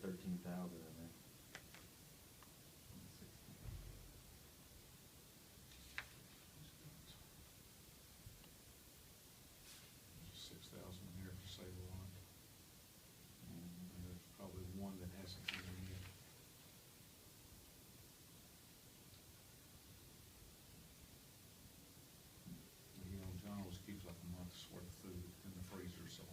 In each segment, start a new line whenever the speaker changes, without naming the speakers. fifteen thousand in there.
Six thousand in there for save a lot, and
Mhm.
there's probably one that hasn't come in yet. But, You know, John always keeps like a month's worth of food in the freezer, so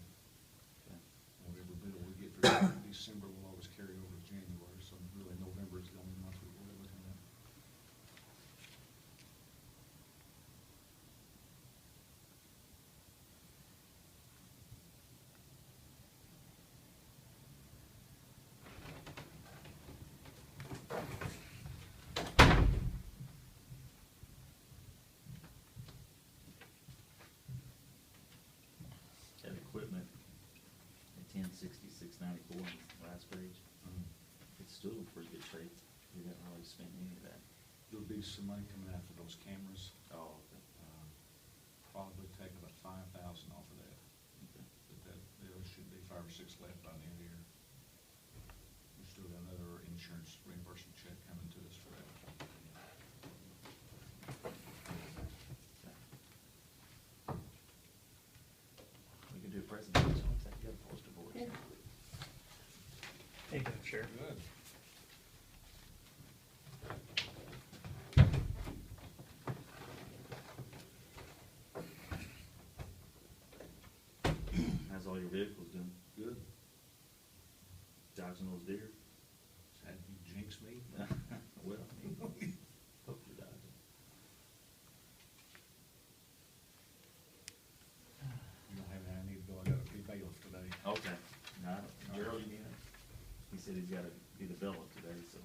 Okay.
whatever bill we get for December will always carry over to January, so really November is the only month we're really looking at.
Got equipment at ten sixty-six ninety-four on the last page.
Um,
It's still in pretty good shape. We haven't really spent any of that.
There'll be some money coming out for those cameras,
Oh, okay.
um, probably take about five thousand off of that.
Okay.
But that, there should be five or six left by the end of the year. We still got another insurance reimbursement check coming to us for that.
Okay. We can do a presentation once I get a poster board.
Thank you, Sheriff.
Good.
How's all your vehicles doing?
Good.
Dodging those deer?
Had you jinxed me?
Well, I mean, hope you're dodging.
You don't have any, I need to go, I gotta be bailiff today.
Okay, now, Gerald, you need it? He said he's gotta be the bell up today, so.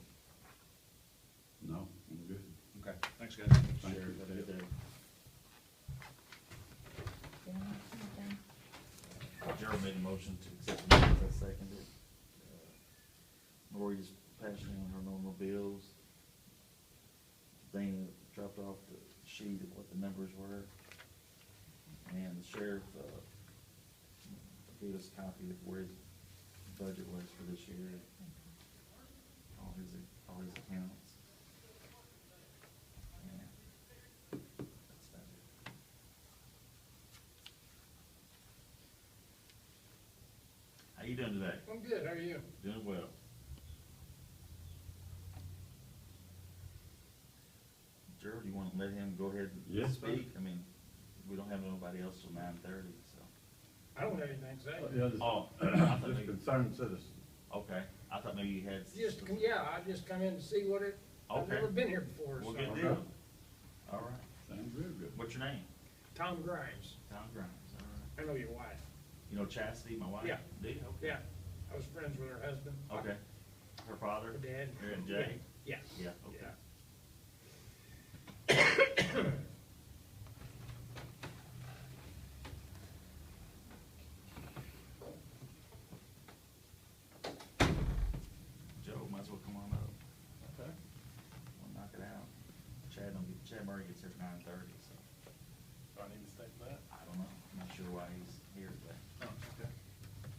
No, I'm good.
Okay, thanks, guys.
Thank you.
Sheriff, have a good day. Gerald made a motion to accept the minutes, I seconded it. Uh, Lori's passing on her normal bills. Dana dropped off the sheet of what the numbers were. And the sheriff, uh, gave us a copy of where his budget was for this year. All his, all his accounts. Yeah. That's about it. How you doing today?
I'm good, how are you?
Doing well. Gerald, you wanna let him go ahead and
Yes, sir.
speak? I mean, we don't have nobody else till nine thirty, so.
I don't have anything to say.
Yeah, just-
Oh, I thought
Just
maybe,
concerned citizens.
okay, I thought maybe you had.
Just, come- yeah, I just come in to see what it, I've
Okay.
never been here before,
Well,
so.
good
Okay.
deal. All right,
Sounds real good.
what's your name?
Tom Grimes,
Tom Grimes, all right.
I know your wife,
You know Chastity, my wife?
Yeah.
Do you? Okay.
yeah, I was friends with her husband.
Okay. Her father?
Her dad.
Her and Jay?
Yeah.
Yeah, okay.
Yeah.
Joe, might as well come on up. We'll knock it out. Chad don't get, Chad Murray gets here at nine thirty, so
Do I need to state that?
I don't know. I'm not sure why he's here today.
Oh, okay.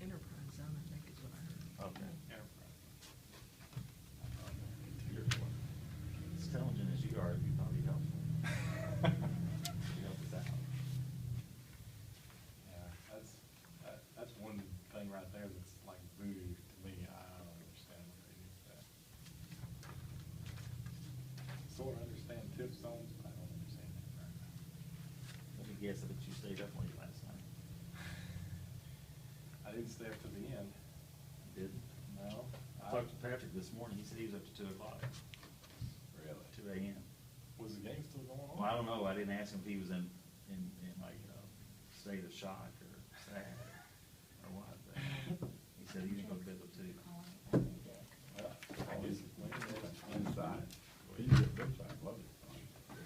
Enterprise zone, I think is what I heard.
Okay.
Enterprise.
You're As intelligent as you are, it'd be probably helpful. You helped us out.
Yeah, that's, that, that's one thing right there that's like voodoo to me, I don't understand what they do for that. Sort of understand tip zones, but I don't understand that right now.
Let me guess, I bet you stayed up late last night.
I didn't stay up to the end,
Didn't?
no.
I talked to Patrick this morning. He said he was up to two o'clock,
Really? Oh.
two AM.
Was the game still going on?
Well, I don't know. I didn't ask him if he was in, in, in like, uh, state of shock or sad or what, but he said he was gonna bed up too.
Well, I guess it's Wednesday.
Inside. You can get this side.